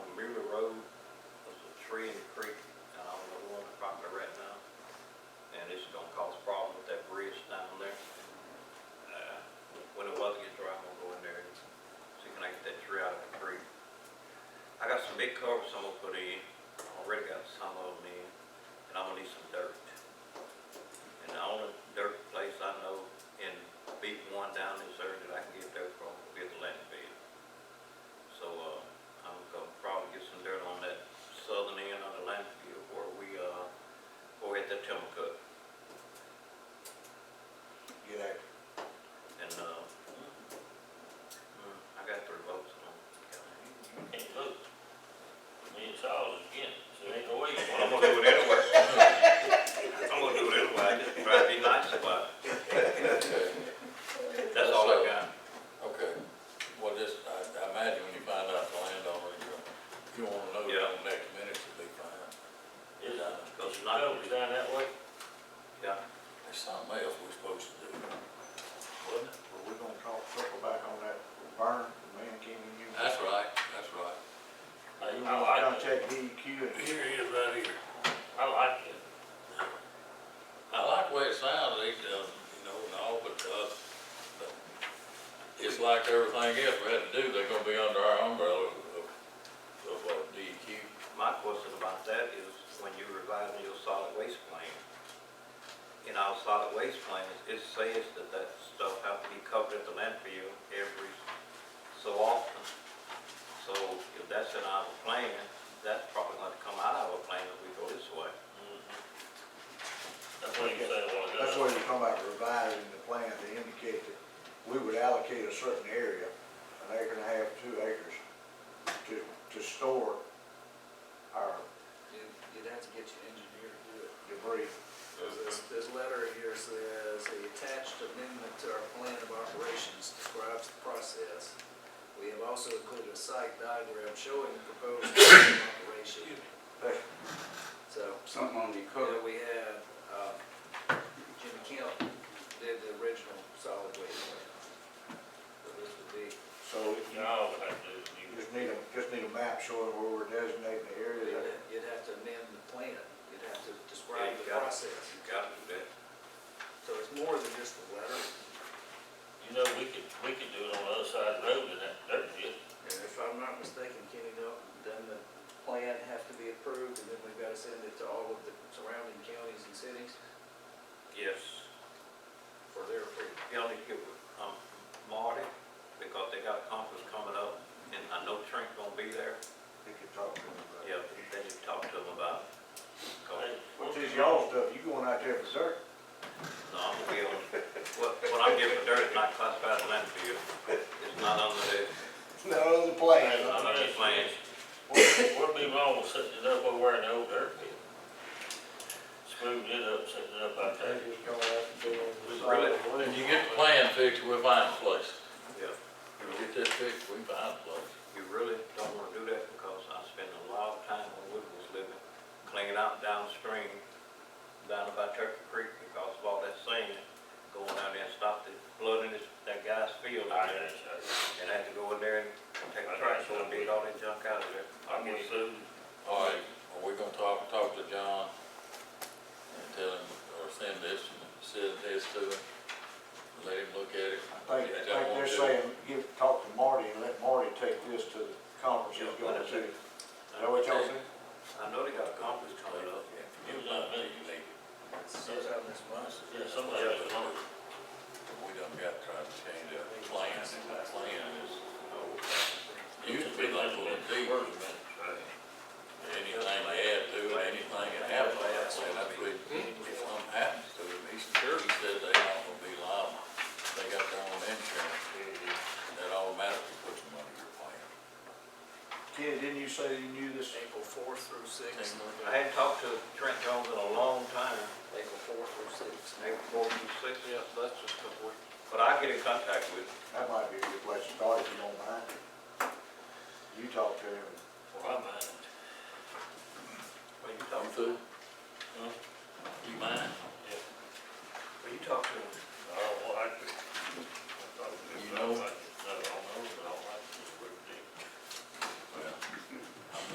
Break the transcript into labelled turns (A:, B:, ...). A: Uh, got some big culverts I'm gonna put in, already got some of them in, and I'm gonna need some dirt. And the only dirt place I know in Beach One down this area that I can get dirt from will be the landfill. So, uh, I'm gonna probably get some dirt on that southern end of the landfill where we, uh, where we had that timber cut.
B: Get out.
A: And, uh, mm, I got three votes on it.
C: Hey, look, me and Charles again, so ain't no way.
A: Well, I'm gonna do it anyway. I'm gonna do it anyway, I just try to be nice about it. That's all I got.
D: Okay, well, just, I, I imagine when you find out the landowner, you, you wanna know
A: Yeah.
D: in the next minute to be fine.
C: Is it,
A: Because it's not
C: no,
A: gonna
C: it's
A: be,
C: down that way?
A: yeah,
D: There's something else we're supposed to do.
A: wasn't it?
B: Well, we're gonna talk, circle back on that burn, the man came in here.
D: That's right, that's right.
C: I,
B: You
C: I
B: wanna
C: like it,
B: contact DEQ E and
D: Here he is, right here.
C: I like it.
D: I like the way it sounds, he does, you know, and all, but, uh, but it's like everything else we had to do, they're gonna be under our umbrella of, of, uh, DEQ.
A: My question about that is when you revising your solid waste plan, in our solid waste plan, it- it says that that stuff have to be covered at the landfill every so often. So if that's in our plan, that's probably gonna come out of our plan if we go this way.
C: That's what you say, well,
B: That's
C: it
B: why
C: does.
B: you come about revising the plan to indicate that we would allocate a certain area, an acre and a half, two acres, to, to store our
E: You'd, you'd have to get your engineer to do it.
B: debris.
E: Because This, this letter here says, the attached amendment to our plan of operations describes the process. We have also included a site diagram showing the proposed plan of operation. So,
F: Something on the
E: yeah,
F: code.
E: we had, um, Jimmy Kemp did the original solid waste plan. So this would be,
B: So you
C: You know, all we have to do is you-
B: just need a, just need a map showing where we're designating the area.
E: you'd
B: that-
E: ha- you'd have to amend the plan, you'd have to describe
A: Yeah, you
E: the
A: got it.
E: process.
A: You gotta do that.
E: So it's more than just a letter.
C: you know, we could, we could do it on the other side of the road in that dirt pit.
E: And if I'm not mistaken, Kenny Dalton, then the plan have to be approved, and then we've got to send it to all of the surrounding counties and cities
A: Yes.
E: for their approval.
A: You only give, um, Marty, because they got a conference coming up, and I know Trent gonna be there.
B: You could talk to them about.
A: Yeah, they just talked to him about it. 'Cause-
B: Which is y'all stuff, you going out there for dirt?
A: No, I'm gonna be on, what, what I'm giving dirt is not classified as landfill. It's not under the,
B: No, the plan.
A: it's not under the plan.
C: What- What'd be wrong with setting it up over where in the old dirt pit? Smoothing it up, setting it up out there.
D: When you get the plan fixed, we'll find a place.
A: Yeah.
D: When we get this fixed, we find a place.
A: You really don't wanna do that because I spent a lot of time when we was living, cleaning out downstream, down about Turkey Creek because of all that sand going out there and stop the flooding, this- that guy's field
C: I
A: out there.
C: guess,
A: and have to go in there and take a trash and beat all that junk out of there.
C: I, I'm with Sue.
D: All right, well, we're gonna talk, talk to John and tell him, or send this, send this to him, let him look at it.
B: Like, like
D: If they don't
B: they're
D: want to,
B: saying, give, talk to Marty and let Marty take this to the conference he's
A: Yeah,
B: going
A: that's
B: to.
A: it.
B: Is that what y'all saying?
A: I know they got a conference coming up.
D: Give us that minute, you need it.
E: Sometime this month.
C: Yeah, somebody else is on.
D: We done got tried to change our plan, and that plan is, used to be like a little deep, anything they add to it, anything that happens, that's what, if something happens to it, he said they all gonna be liable. They got their own insurance, that automatically puts them under your plan.
B: Kenny, didn't you say you knew this?
E: April fourth through sixth.
A: I hadn't talked to Trent Jones in a long time,
E: April fourth through sixth.
A: maybe four, six, yeah, that's just a couple weeks. But I get in contact with him.
B: That might be a good place to start if you don't mind. You talk to him,
C: Oh,